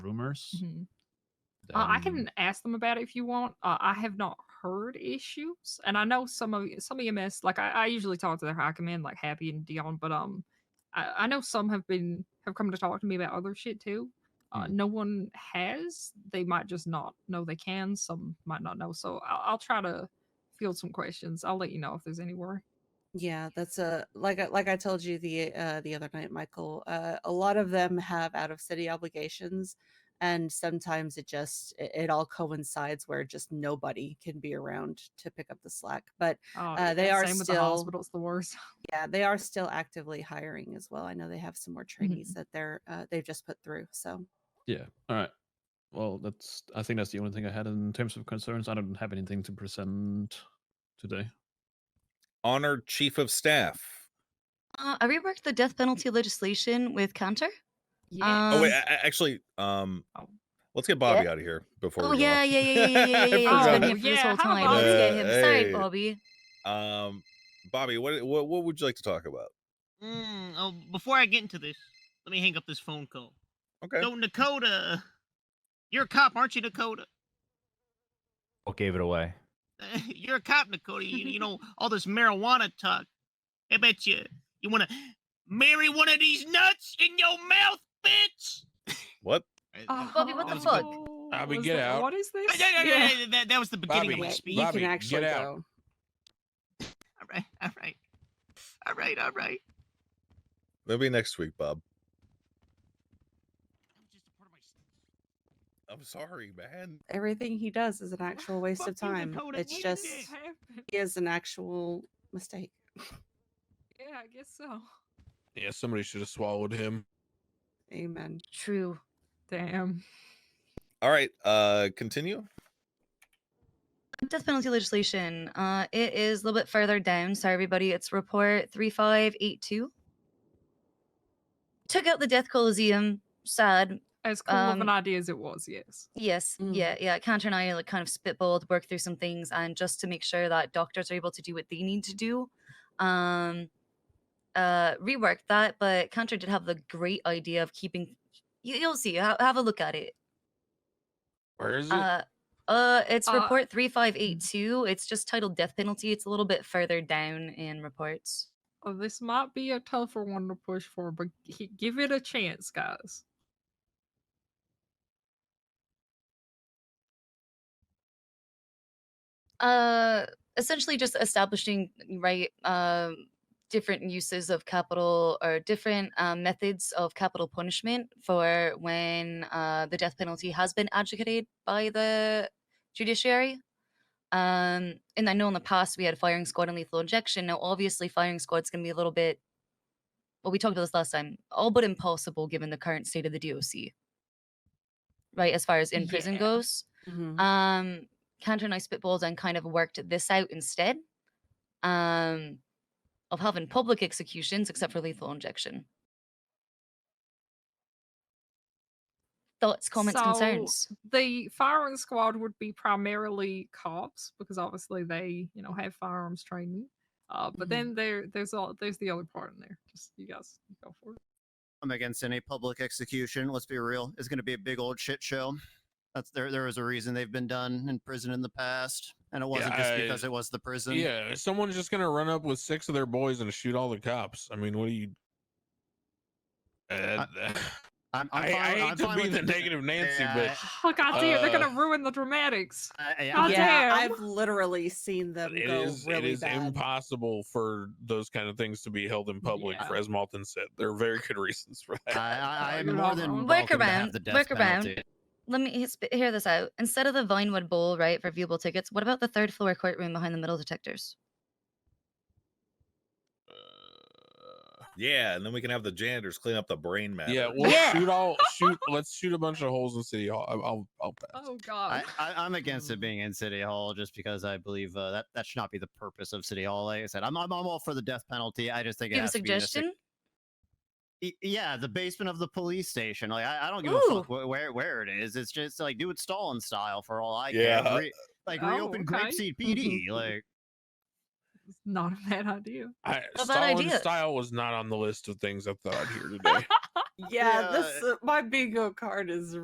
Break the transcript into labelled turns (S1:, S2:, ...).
S1: rumors.
S2: Mhm. Uh,
S1: Um
S2: I can ask them about it if you want. Uh, I have not heard issues, and I know some of some EMS. Like I, I usually talk to their high command, like Happy and Dion, but um, I, I know some have been have come to talk to me about other shit too. Uh,
S1: Hmm.
S2: No one has. They might just not know they can. Some might not know. So I'll, I'll try to field some questions. I'll let you know if there's any worry.
S3: Yeah, that's a like I- like I told you the uh, the other night, Michael. Uh, a lot of them have out of city obligations, and sometimes it just it, it all coincides where just nobody can be around to pick up the slack. But
S2: Oh,
S3: Uh, they
S2: yeah,
S3: are
S2: same with the
S3: still-
S2: hospital's the worst.
S3: yeah, they are still actively hiring as well. I know they have some more trainees
S4: Mm-hmm.
S3: that they're uh, they've just put through. So
S1: Yeah. All right. Well, that's. I think that's the only thing I had in terms of concerns. I don't have anything to present today.
S5: Honored Chief of Staff.
S6: Uh, I reworked the death penalty legislation with Counter.
S2: Yeah.
S5: oh wait,
S6: Um,
S5: a- a- actually, um,
S2: Oh.
S5: let's get Bobby out of here before.
S6: Oh
S5: we go
S6: yeah,
S5: off.
S6: yeah, yeah, yeah, yeah, yeah, yeah. He's
S5: I
S6: been
S2: Oh,
S6: here for this
S2: yeah,
S6: whole
S2: how
S6: time.
S2: about
S6: Let's get
S5: that?
S6: him. Sorry,
S5: Hey.
S6: Bobby.
S5: forgot. Um, Bobby, what what what would you like to talk about?
S7: Mm, oh, before I get into this, let me hang up this phone call.
S5: Okay.
S7: So Dakota, you're a cop, aren't you, Dakota?
S8: What gave it away?
S7: you're a cop, Dakota. You, you know all this marijuana talk. I bet you you want to marry one of these nuts in your mouth, bitch.
S5: What?
S7: Uh,
S2: Oh,
S6: Bobby, what
S7: that
S6: the
S7: was
S6: fuck?
S7: good.
S4: Bobby,
S2: was
S4: get
S2: that-
S4: out.
S2: What is this?
S7: Uh, yeah, yeah, yeah, yeah, That, that was the beginning
S3: yeah,
S7: of my
S4: Bobby,
S7: speech.
S3: you
S4: Bobby,
S3: can
S4: get
S3: actually
S4: out.
S3: go.
S7: All right, all right, all right, all right.
S5: That'll be next week, Bob.
S7: That was just a part of my s-
S5: I'm sorry, man.
S3: Everything he does is
S4: Ah,
S3: an actual waste of
S7: fuck you,
S3: time.
S7: Dakota,
S3: It's
S7: what
S3: just
S7: is
S2: What happened?
S3: he is an actual mistake.
S2: Yeah, I guess so.
S4: Yeah, somebody should have swallowed him.
S3: Amen.
S6: True.
S2: Damn.
S5: All right, uh, continue.
S6: Death penalty legislation. Uh, it is a little bit further down. Sorry, everybody. It's report three five eight two. Took out the death coliseum. Sad.
S2: As cool of an
S6: Um,
S2: idea as it was, yes.
S6: Yes,
S3: Mm.
S6: yeah, yeah. Cantor and I like kind of spitballed, worked through some things, and just to make sure that doctors are able to do what they need to do, um, uh, reworked that. But Cantor did have the great idea of keeping. You, you'll see. Have, have a look at it.
S4: Where is it? Mm.
S6: Uh, uh, it's
S2: Uh,
S6: report three five eight two. It's just titled death penalty. It's a little bit further down in reports.
S2: Oh, this might be a tougher one to push for, but g- give it a chance, guys.
S6: Uh, essentially just establishing right um different uses of capital or different um, methods of capital punishment for when uh, the death penalty has been advocated by the judiciary um, and i know in the past we had firing squad and lethal injection now obviously firing squad's going to be a little bit well we talked about this last time all but impossible given the current state of the doc right as far as in prison
S2: Yeah.
S6: goes
S4: Mm-hmm.
S3: Mhm.
S6: um Cantor and I spitballed and kind of worked this out instead um of having public executions except for lethal injection. Thoughts, comments,
S2: So,
S6: concerns.
S2: The firing squad would be primarily cops because obviously they, you know, have firearms training. Uh, but
S3: Mhm.
S2: then there, there's all, there's the other part in there. Just you guys go for it.
S9: I'm against any public execution. Let's be real; it's going to be a big old shit show. That's there. There was a reason they've been done in prison in the past, and it wasn't just
S4: I-
S9: because it was the prison.
S4: yeah, someone's just gonna run up with six of their boys and shoot all the cops. I mean, what do you? Uh,
S9: I'm,
S4: I, I
S9: I'm fine-
S4: hate
S9: I'm
S4: to
S9: fine
S4: be
S9: with
S4: the
S9: it.
S4: negative Nancy,
S9: Yeah,
S4: but
S2: Oh god damn, they're gonna
S4: Uh,
S2: ruin the dramatics.
S9: Eh, I- I-
S2: How
S9: I'm-
S3: yeah,
S2: dare.
S3: I've literally seen them
S4: it
S3: go
S4: is it
S3: really
S4: is
S3: bad.
S4: impossible for those kind of things to be held in public.
S2: Yeah.
S4: For, as Malton said, there are very good reasons for that.
S9: I, I, I'm
S2: You're
S9: more
S2: welcome.
S9: than
S2: Work
S9: welcome to
S6: around,
S9: have the death
S6: work around.
S9: penalty.
S6: Let me he- sp- hear this out. Instead of the Vinewood Bowl, right, for viewable tickets, what about the third floor courtroom behind the metal detectors?
S5: Yeah, and then we can have the janitors clean up the brain matter.
S4: yeah, we'll
S6: Yeah.
S4: shoot all shoot. Let's shoot a bunch of holes in City Hall. I'll I'll, I'll pass.
S2: Oh
S9: I,
S2: god.
S9: I, I'm against it being in City Hall just because I believe uh, that that should not be the purpose of City Hall. Like I said, I'm, I'm, I'm all for the death penalty. I just think it
S6: Give a
S9: has to be in a sec-
S6: suggestion.
S9: Y- Yeah, the basement of the police station. Like I, I don't give a fuck wh- where where it is. It's just like do it Stalin style for all I
S5: Yeah.
S9: care. Re- like
S2: Oh,
S9: reopen
S2: okay.
S9: Grapeseed PD.
S2: Mhm.
S9: Like
S2: It's not a bad idea.
S4: I,
S6: A bad
S4: Stalin
S6: idea.
S4: style was not on the list of things I thought I'd hear today.
S3: Yeah,
S9: Yeah.
S3: this uh, my bingo card is